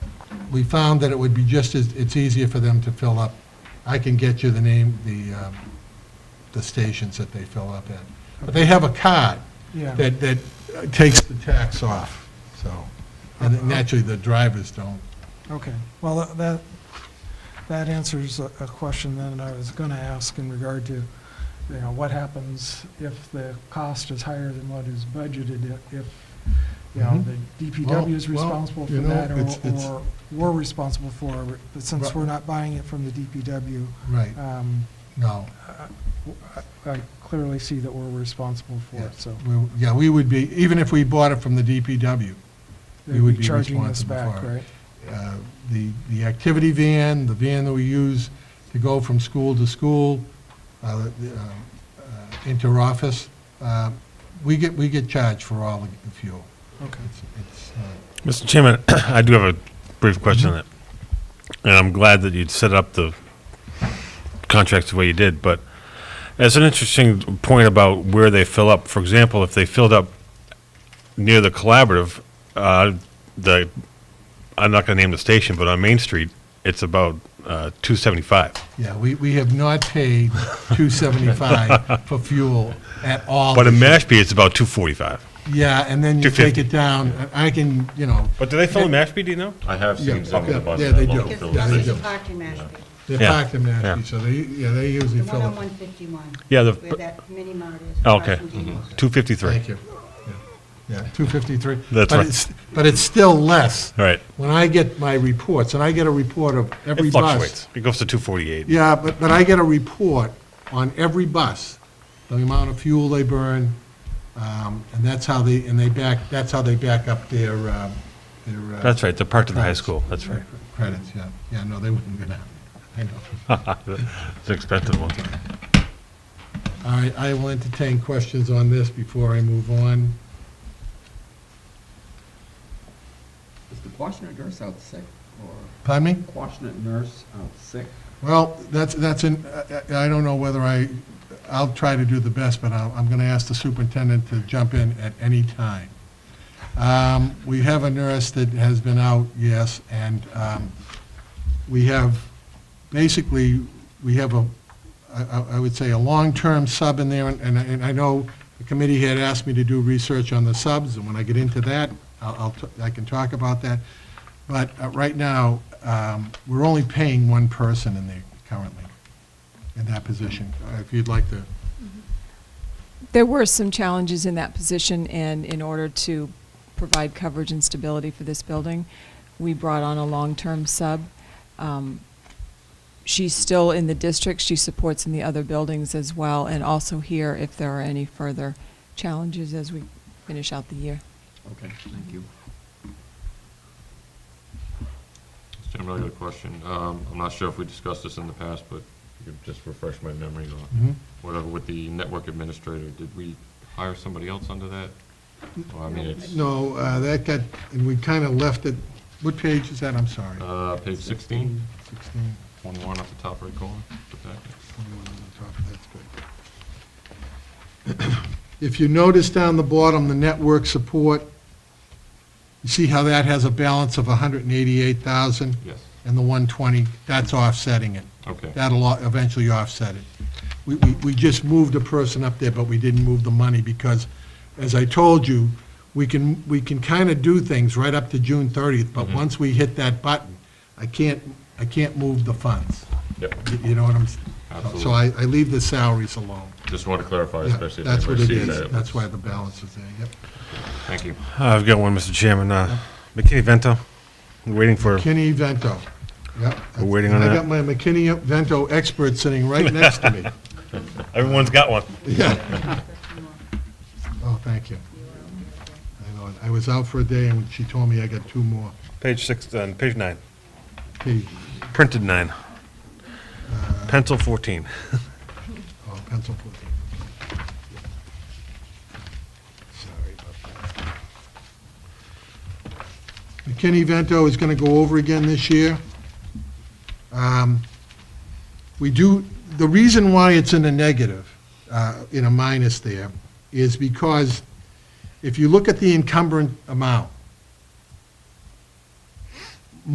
we found that it would be just as, it's easier for them to fill up. I can get you the name, the, um, the stations that they fill up at. But they have a card Yeah. that, that takes the tax off, so. Uh-huh. And naturally, the drivers don't. Okay, well, that, that answers a a question then I was going to ask in regard to, you know, what happens if the cost is higher than what is budgeted, i- if, you know, Mhm. the DPW is Well, well, responsible for you know, that, it's- or, it's- or we're responsible for, it, but since Right. we're not buying it from the DPW, Right, um, no. I- I clearly see that we're responsible for Yeah, it, so. we- Yeah, we would be, even if we bought it from the DPW, we they'd would be charging us responsible back, for it. right? uh, the, the activity van, the van that we use to go from school to school, uh, the, uh, uh, inter-office, uh, we get, we get charged for all the fuel. Okay. It's, it's, uh, Mr. Chairman, I do have a brief question Mm-hmm. on it. And I'm glad that you'd set up the contracts the way you did, but as an interesting point about where they fill up, for example, if they filled up near the collaborative, uh, the, I'm not going to name the station, but on Main Street, it's about uh, 275. yeah, we, we have not paid 275 for fuel at all. But in this year. Mashpee, it's about 245. Yeah, and then you take 250. it down, and I can, you know, But do they fill in Mashpee, do you know? I have Yeah, seen some of yeah, the buses. yeah, they at do. local Yeah, they filling Because do. it's parked in Mashpee, they're Yeah, packed in Mashpee, yeah. so they, yeah, they usually the one fill on up. 151. Yeah, the- Where that mini mart is. Oh, across Okay, from Dino's. 253. Mm-hmm. Thank you. Yeah, Yeah, 253. That's But right. it's- But it's still less. All right. When I get my reports, and I get a report of every It bus. fluctuates. It goes to 248. Yeah, but, but I get a report on every bus, the amount of fuel they burn, um, and that's how they, and they back, that's how they back up their, um, their. uh, That's right, they're parked at the high school, that's right. Credits, yeah. Yeah, no, they wouldn't go down. I know. It's an expensive one. All right, I will entertain questions on this before I move on. Is the Quashnet nurse out sick, or Pardon me? Quashnet nurse out sick? Well, that's, that's, an- I I- I don't know whether I, I'll try to do the best, but I'll- I'm going to ask the superintendent to jump in at any time. Um, We have a nurse that has been out, yes, and um, we have, basically, we have a, I- I I would say, a long-term sub in there, and- and I- and I know the committee had asked me to do research on the subs, and when I get into that, I'll- I'll, t- I can talk about that. But uh, right now, um, we're only paying one person in there currently, in that position. Uh, If you'd like to, There were some challenges in that position, and in order to provide coverage and stability for this building, we brought on a long-term sub. Um, She's still in the district, she supports in the other buildings as well, and also here if there are any further challenges as we finish out the year. Okay, thank you. Mr. Chairman, I got a question. Um, I'm not sure if we discussed this in the past, but you could just refresh my memory Mhm. on whatever, with the network administrator, did we hire somebody else under that? Well, I mean, it's, no, uh, that got, and we kind of left it, what page is that? I'm sorry. uh, page 16, 16, one one up the top right corner. put that in. 21 on the top, that's good. If you notice down the bottom, the network support, you see how that has a balance of 188,000 Yes, and the 120, that's offsetting it. okay, That'll o- eventually offset it. We, we, we just moved a person up there, but we didn't move the money because, as I told you, we can, we can kind of do things right up to June thirtieth, Mm-hmm. but once we hit that button, I can't, I can't move the funds. yep. You- You know what I'm, s- so Absolutely. I, I leave the salaries alone. Just want to clarify, Yeah, especially if That's what anybody it sees that. is. it That's was- why the balance is there, yep. Thank you. I've got one, Mr. Chairman. Uh, McKinney Vento, we're waiting for, McKinney Vento, yep. We're waiting on And I got that. my McKinney Vento expert sitting right next to me. everyone's got one. Yeah. Oh, thank you. I know, I was out for a day, and she told me I got two more. Page six, uh, page nine, Hey, printed nine. Pencil 14. oh, pencil pushing. Sorry about that. McKinney Vento is gonna go over again this year. Um, We do, the reason why it's in a negative, uh, in a minus there, is because if you look at the encumbrance amount,